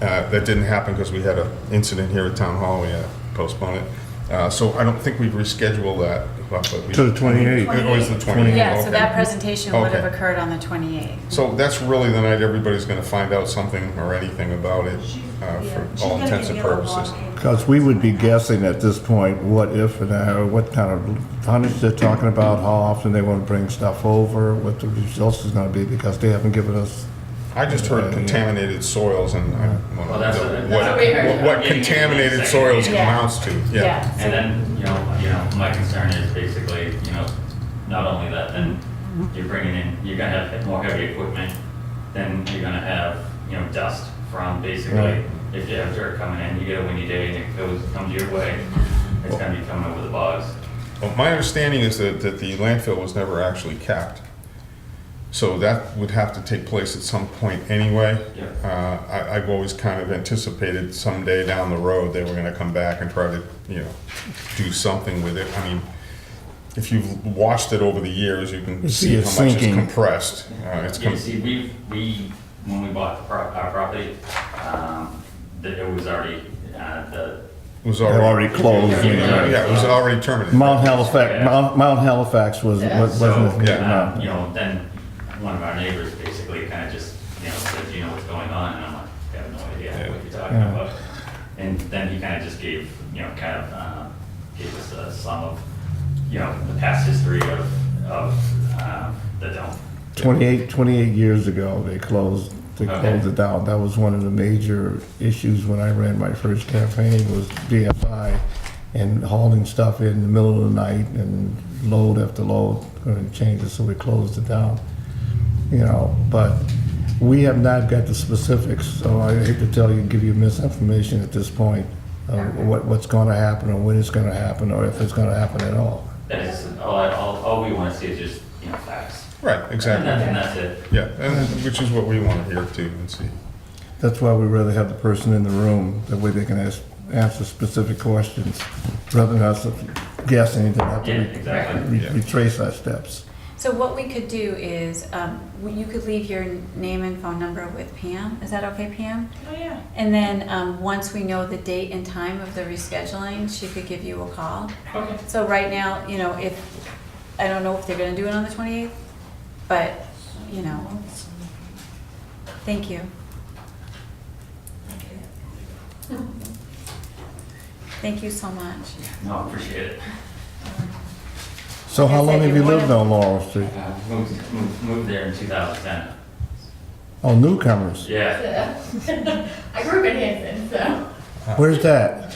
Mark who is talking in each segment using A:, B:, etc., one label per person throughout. A: Uh, That didn't happen because we had an incident here at Town Hall, we had to postpone it. Uh, So I don't think we've rescheduled that. but we-
B: To the 28th.
A: It was the 28th.
C: Yeah, so
A: okay.
C: that presentation would have
A: Okay.
C: occurred on the 28th.
A: So that's really the night everybody's going to find out something or anything about it, uh, for all intents and purposes.
B: Because we would be guessing at this point, what if, and how- what kind of tonnage they're talking about, how often they want to bring stuff over, what the results is going to be, because they haven't given us,
A: I just heard contaminated soils and I want to
D: Well, that's
A: know
D: what- that's
A: what-
D: what we heard.
A: what- what contaminated soils
C: Yeah.
A: amounts to, yeah.
D: And then, you know, you know, my concern is basically, you know, not only that, then you're bringing in, you're gonna have more heavy equipment, then you're gonna have, you know, dust from
B: Right.
D: basically, if you have dirt coming in, you get a windy day and it goes, comes your way, it's gonna be coming over the bogs.
A: Well, My understanding is that, that the landfill was never actually capped. So that would have to take place at some point anyway.
D: Yeah.
A: Uh, I, I've always kind of anticipated someday down the road, they were gonna come back and try to, you know, do something with it. I mean, if you've watched it over the years, you can
B: You see
A: see how
B: it
A: much it's
B: sinking.
A: compressed. Uh, It's
D: Yeah,
A: com-
D: see, we, we, when we bought the pro- our property, um, that it was already, uh, the,
A: it was
B: they're already
A: already,
B: closed. you know.
A: yeah, it was already terminated.
B: Mount Halifax, Mount Mount Halifax was, was-
D: So,
B: wasn't,
D: uh,
B: no.
D: you know, then one of our neighbors basically kind of just, you know, said, "Do you know what's going on? And I'm like, I have no idea what you're talking
B: Yeah.
D: about. And then he kind of just gave, you know, kind of, uh, gave us a sum of, you know, the past history of, of, uh, the dump.
B: 28, 28 years ago, they closed, they
D: Okay.
B: closed it down. That was one of the major issues when I ran my first campaign was BFI and hauling stuff in the middle of the night and load after load, going to change it, so we closed it down. You know, but we have not got the specifics, so I hate to tell you, give you misinformation at this point of what, what's going to happen or when it's going to happen or if it's going to happen at all.
D: That is, all, I- all, all we want to see is just, you know, facts.
A: Right,
D: And
A: exactly,
D: that's, and that's it.
A: yeah, and, which is what we wanna hear too and see.
B: That's why we rather have the person in the room, that way they can ask, answer specific questions, rather than us guessing and have
D: Yeah,
B: to
D: exactly.
B: re-
A: Yeah.
B: retrace our steps.
C: So what we could do is, um, w- you could leave your name and phone number with Pam. Is that okay, Pam?
E: Oh, yeah.
C: And then, um, once we know the date and time of the rescheduling, she could give you a call.
D: Okay.
C: So right now, you know, if, I don't know if they're gonna do it on the 28th, but, you know, thank you. Thank you so much.
D: No, I appreciate it.
B: So how long have you lived on Laurel Street?
D: Uh, moved, moved, moved there in two thousand ten.
B: Oh, newcomers,
D: Yeah.
E: I grew up in Hanson, so.
B: where's that?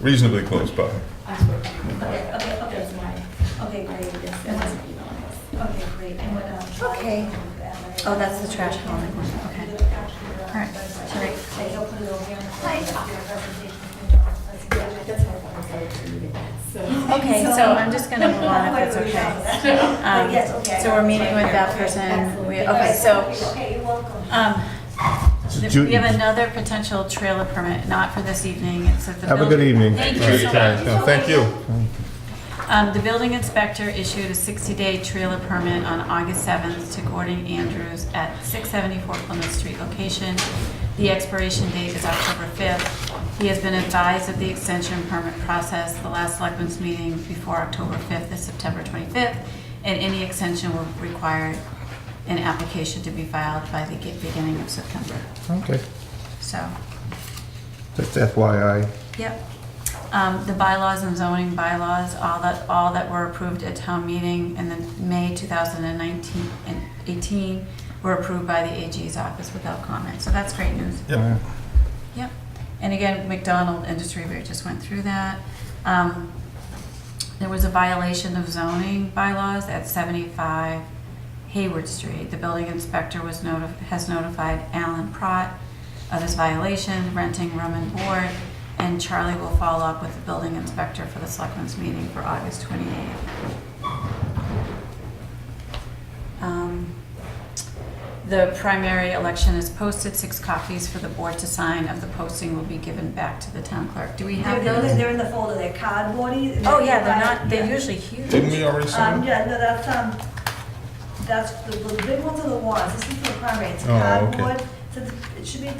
A: Reasonably close, but.
E: Okay, okay, okay, it's mine. Okay, great. That wasn't email. Okay, great. And what, um,
C: Okay. Oh, that's the trash hauling one, okay.
E: uh,
C: All right, all right. Okay, so I'm just gonna move on if it's okay. Um, So we're meeting with that person, we, okay, so,
F: Okay, you're welcome.
C: um,
B: It's a
C: we have
B: Ju-
C: another potential trailer permit, not for this evening, it's at the.
B: Have a good
C: building-
B: evening.
C: Thank
A: Right,
C: you so
A: yeah,
C: much.
A: no, Thank you.
C: Um, the building inspector issued a 60-day trailer permit on August 7th to Gordon Andrews at 674 Plymouth Street location. The expiration date is October 5th. He has been advised of the extension permit process. The last selectmen's meeting before October 5th is September 25th, and any extension will require an application to be filed by the beginning of September.
B: Okay,
C: So,
B: just FYI.
C: Yep. Um, the bylaws and zoning bylaws, all that, all that were approved at town meeting in the May two thousand and nineteen and eighteen were approved by the AG's office without comment, so that's great news.
A: Yep.
C: Yep. And again, McDonald Industry, we just went through that. Um, there was a violation of zoning bylaws at seventy-five Hayward Street. The building inspector was notified, has notified Alan Pratt of his violation, renting room and board, and Charlie will follow up with the building inspector for the selectmen's meeting for August twenty-eighth. Um, the primary election is posted, six copies for the board to sign of the posting will be given back to the town clerk. Do we
F: They're,
C: have
F: they're-
C: those?
F: they're in the folder, they're cardboardy.
C: Oh, yeah, they're not,
F: Yeah.
C: they're usually huge.
A: Didn't we already sign?
F: Um, yeah, no, that's, um, that's, the the big ones are the ones, this is for the primary, it's
A: Oh, okay.
F: cardboard, so it's- it should be